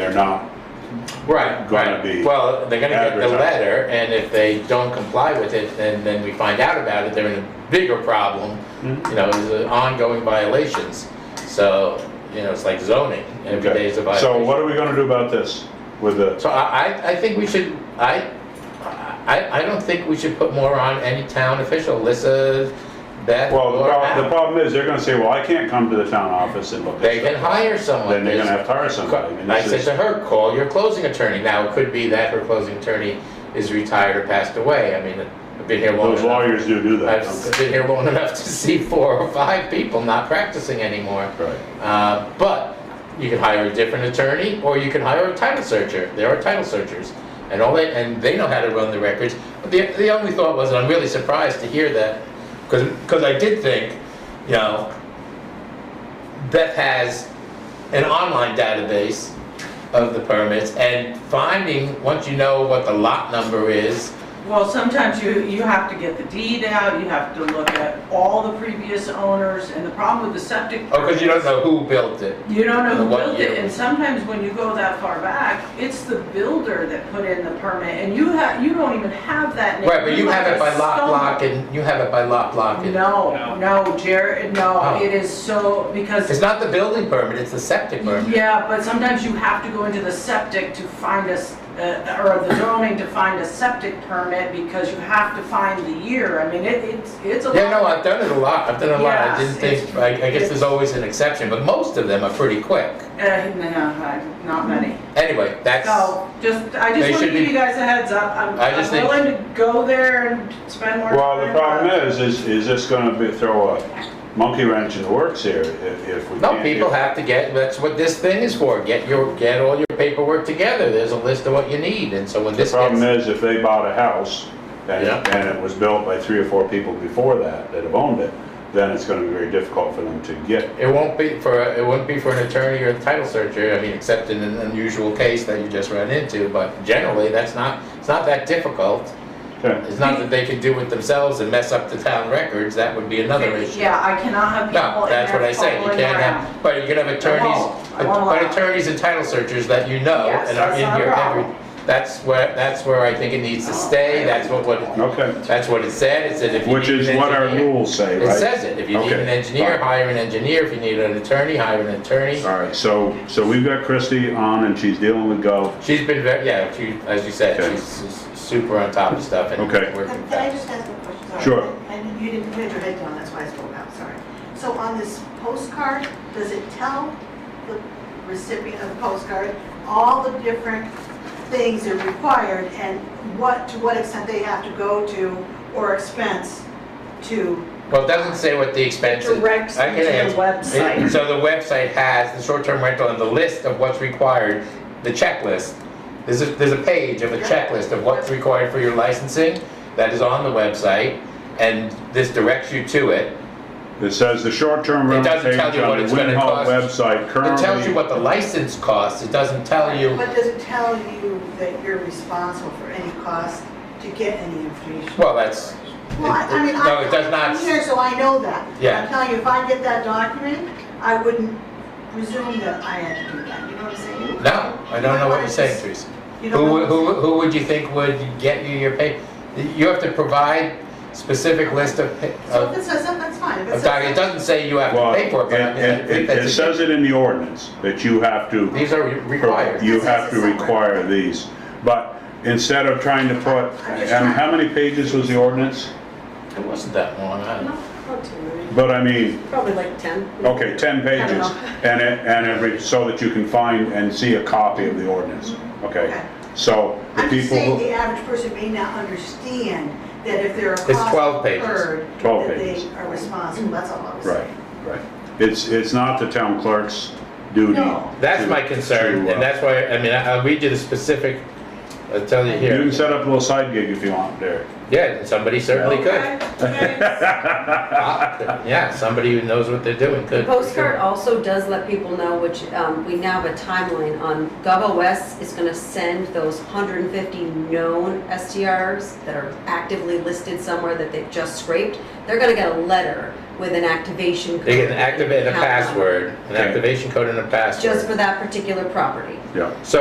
they're not. Right, gonna right. be Well, they're gonna get the advertised. letter, and if they don't comply with it, then, then we find out about it, they're in a bigger problem. Mm-hmm. You know, it's uh, ongoing violations, so, you know, it's like zoning, every day is a Okay. So violation. what are we gonna do about this with the, So I, I, I think we should, I, I, I don't think we should put more on any town official, Alyssa, Beth, well, the or prob- the Al. problem is, they're gonna say, well, I can't come to the town office and look at They it. can hire someone. Then they're gonna There's- have to hire somebody. mean, I this said is- to her, call your closing attorney. Now, it could be that her closing attorney is retired or passed away. I mean, I've been here long Those enough. lawyers do do that. I've okay. been here long enough to see four or five people not practicing anymore. Right. Uh, But you can hire a different attorney, or you can hire a title searcher. There are title searchers. And all they, and they know how to run the records. But The, the only thought was, and I'm really surprised to hear that, because, because I did think, you know, Beth has an online database of the permits, and finding, once you know what the lot number is, Well, sometimes you, you have to get the deed out, you have to look at all the previous owners, and the problem with the septic. or because oh, you don't know who built it. You don't know And who what built it, year. and sometimes when you go that far back, it's the builder that put in the permit, and you have, you don't even have that name. Right, but you have it by lot, stumble. block, and, you have it by lot, block, and. No, no, Jared, no, Oh. it is so, because It's not the building permit, it's the septic permit. Yeah, but sometimes you have to go into the septic to find a s uh, or the zoning to find a septic permit because you have to find the year. I mean, it, it's, it's a. Yeah, no, lot. I've done it a lot, I've done it a lot, I didn't Yes, think, I, I guess there's always an exception, but most of them are pretty quick. Uh, no, I- not many. Anyway, that's, So, just, I They just want should to give be- you guys a heads up. I'm I just I'm think- willing to go there and spend more time. Well, the problem but- is, is, is this gonna be, throw a monkey wrench in the works here if, if we can't? no, people do- have to get, that's what this thing is for, get your, get all your paperwork together, there's a list of what you need, and so when The this problem gets. is, if they bought a house and, Yeah. and it was built by three or four people before that, that have owned it, then it's gonna be very difficult for them to get. It won't be for, it wouldn't be for an attorney or a title searcher, I mean, except in an unusual case that you just ran into, but generally, that's not, it's not that difficult. Okay. It's not that they can do it themselves and mess up the town records, that would be another issue. Yeah, I cannot have people No, in there that's what I say, you fumbling can't around. have, but you can have attorneys, I won't allow but it. attorneys and title searchers that you know Yes, and are that's in not a here every, problem. that's where, that's where I think it needs to stay, that's what, what, Okay, that's what it said, it said if you which need an is what our engineer- rules say, right? It says it, if you need Okay, an engineer, fine. hire an engineer, if you need an attorney, hire an attorney. All right, so, so we've got Christie on and she's dealing with Gov. She's been very, yeah, she, as you said, Okay. she's she's super on top of stuff and Okay. working Can I fast. just ask a question? Sorry. Sure. And you didn't put your head down, that's why I spoke out, sorry. So on this postcard, does it tell the recipient of the postcard all the different things that are required and what, to what extent they have to go to or expense to? Well, it doesn't say what the expense is. Directs I can you to the answer. website. It- So the website has the short-term rental and the list of what's required, the checklist. There's a, there's a page of a checklist of what's required for your licensing that is on the website, and this directs you to it. It says the short-term It rental doesn't page tell you what on it's the gonna Wind Hall cost. website It tells currently. you what the license costs, it doesn't tell you, But does it tell you that you're responsible for any cost to get any information? well, that's, Well, I I mean, No, it does not- I'm here, so I know that. Yeah. I'm telling you, if I get that document, I wouldn't presume that I had to do that, you know what I'm saying? no, I don't know what you're saying, Teresa. You don't Who, would- know who, who would you think would get you your pay? You have to provide specific list of, pa- So of if it says that, that's fine. If it In says fact, it that- doesn't say you have Well, to pay it, for it, but I mean, I it, think it- it that's, says it in the ordinance that you have to. these are re- required. You have to require these, but instead of trying to put, and how many pages was the ordinance? It wasn't that long, I don't know. But I mean, Probably like 10. okay, ten pages, and it, and every, so that you can find and see a copy of the ordinance, okay? Okay. So the I'm just people saying who, the average person may not understand that if there are costs 12 pages. incurred, 12 that they pages. are responsible, that's all I was saying. right, right. It's, it's not the town clerk's duty. No. That's to- my concern, to, uh, and that's why, I mean, I- I'll read you the specific, I'll tell you You here. can set up a little side gig if you want there. Yeah, somebody certainly could. Okay, thanks. Yeah, somebody who knows what they're doing The could. postcard also does let people know, which um, we now have a timeline on, GovOS is going to send those 150 known STRs that are actively listed somewhere that they've just scraped, they're going to get a letter with an activation code. They can activate a and account number, password, an Okay. activation code and a Just password. for that particular property. Yeah. So